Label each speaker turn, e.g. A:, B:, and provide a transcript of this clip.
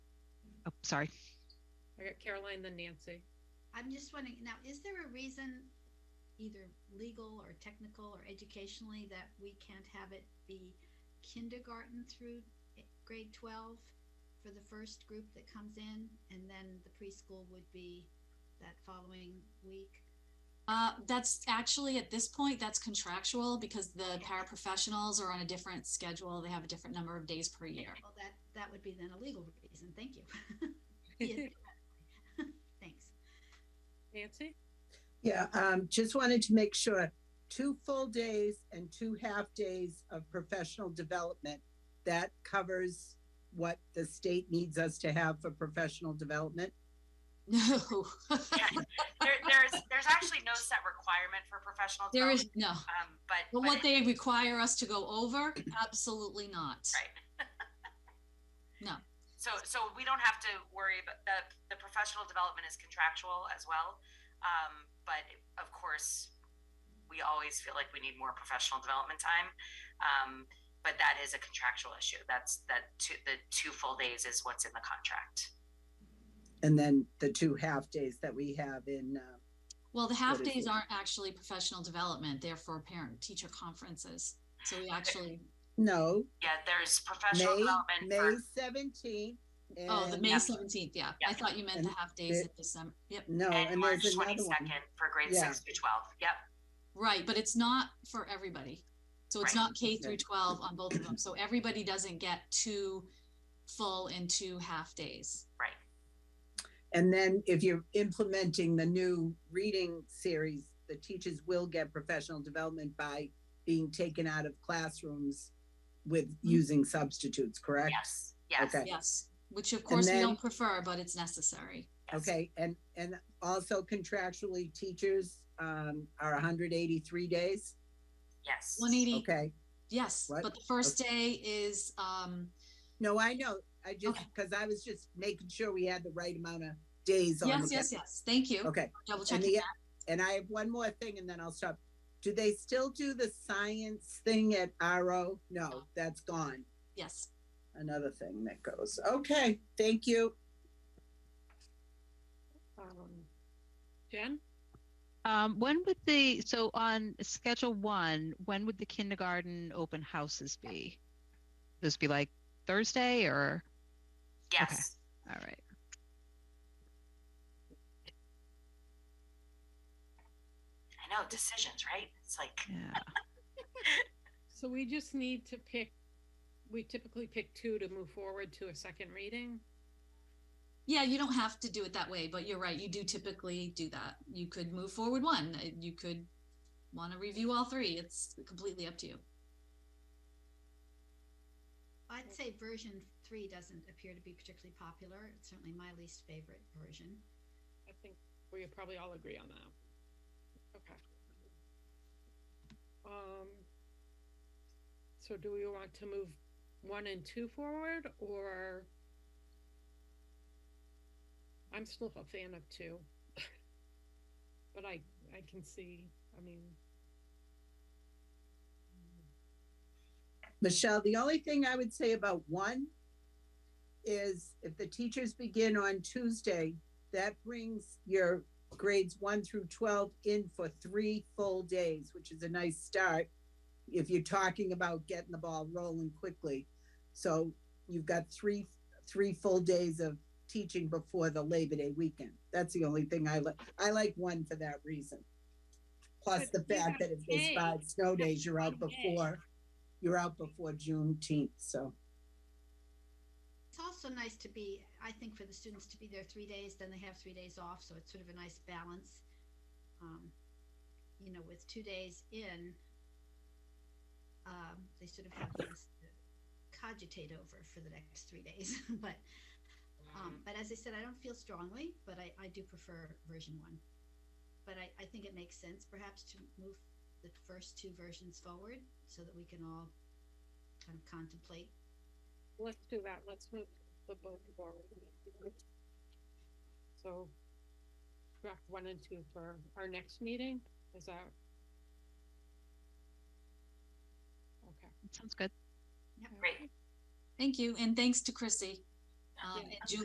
A: Oh, sorry.
B: I got Caroline, then Nancy.
C: I'm just wondering, now, is there a reason, either legal or technical or educationally, that we can't have it be kindergarten through i- grade twelve for the first group that comes in, and then the preschool would be that following week?
D: Uh, that's actually at this point, that's contractual because the paraprofessionals are on a different schedule. They have a different number of days per year.
C: Well, that, that would be then a legal reason, thank you. Yeah, Thanks.
B: Nancy?
E: Yeah, um, just wanted to make sure, two full days and two half days of professional development. That covers what the state needs us to have for professional development.
D: No,
F: There, there's, there's actually no set requirement for professional
D: there
F: development,
D: is no.
F: um, but.
D: But
F: but
D: what
F: it-
D: they require us to go over, absolutely not.
F: Right.
D: No.
F: So, so we don't have to worry, about the, the professional development is contractual as well. Um, but of course, we always feel like we need more professional development time. Um, but that is a contractual issue. That's, that two, the two full days is what's in the contract.
E: And then the two half days that we have in, uh,
D: Well, the half
E: What is
D: days
E: it?
D: aren't actually professional development. They're for parent teacher conferences. So we actually,
E: no,
F: Yeah, there's professional
E: May,
F: development
E: May
F: for,
E: seventeenth.
D: oh, the May
F: Yeah.
D: seventeenth, yeah. I
F: Yeah.
D: thought you meant the half days
E: it-
D: of December. Yep,
E: No,
F: and
E: and
F: March
E: there's another one.
F: twenty-second for grade
E: Yeah.
F: six through twelve. Yep.
D: right, but it's not for everybody. So it's
F: Right.
D: not K through
E: Right.
D: twelve on both of them. So everybody doesn't get two full and two half days.
E: And then if you're implementing the new reading series, the teachers will get professional development by being taken out of classrooms with
D: Mm-hmm.
E: using substitutes, correct?
F: Yes, yes.
E: Okay.
D: Yes, which of course we
E: then-
D: don't prefer, but it's necessary.
F: yes.
E: Okay, and, and also contractually, teachers, um, are hundred eighty-three days,
F: Yes.
D: One eighty,
E: okay?
D: yes,
E: What?
D: but the first day is, um,
E: No, I know, I just,
D: Okay.
E: because I was just making sure we had the right amount of days on.
D: yes,
E: the-
D: yes, yes, thank you.
E: Okay,
D: Double
E: and
D: checking.
E: the, and I have one more thing and then I'll stop. Do they still do the science thing at RO? No, that's gone.
D: Yes,
E: another thing that goes. Okay, thank you.
B: Um, Jen?
A: Um, when would the, so on schedule one, when would the kindergarten open houses be? This be like Thursday or,
F: Yes.
A: all right.
F: I know decisions, right? It's like
A: Yeah.
B: So we just need to pick, we typically pick two to move forward to a second reading.
D: yeah, you don't have to do it that way, but you're right, you do typically do that. You could move forward one, uh, you could want to review all three, it's completely up to you.
C: I'd say version three doesn't appear to be particularly popular. It's certainly my least favorite version.
B: I think we probably all agree on that. Okay. Um, so do we want to move one and two forward or? I'm still a fan of two. But I, I can see, I mean.
E: Michelle, the only thing I would say about one is if the teachers begin on Tuesday, that brings your grades one through 12 in for three full days, which is a nice start if you're talking about getting the ball rolling quickly. So you've got three three full days of teaching before the Labor Day weekend. That's the only thing I like. I like one for that reason. Plus
B: But
E: the
B: you
E: fact
B: have
E: that if there's
B: May.
E: five snow days, you're out
B: May.
E: before you're out before Juneteenth, so.
C: It's also nice to be, I think, for the students to be there three days, then they have three days off, so it's sort of a nice balance. Um, you know, with two days in, um, they sort of have things to cogitate over for the next three days. but, um, but as I said, I don't feel strongly, but I, I do prefer version one. But I, I think it makes sense perhaps to move the first two versions forward so that we can all kind of contemplate
B: Let's do that. Let's move the both forward. So draft one and two for our next meeting, is that? Okay.
A: Sounds good.
F: great.
D: Thank you, and thanks to Chrissy. Um,
B: Yeah.
D: and Julie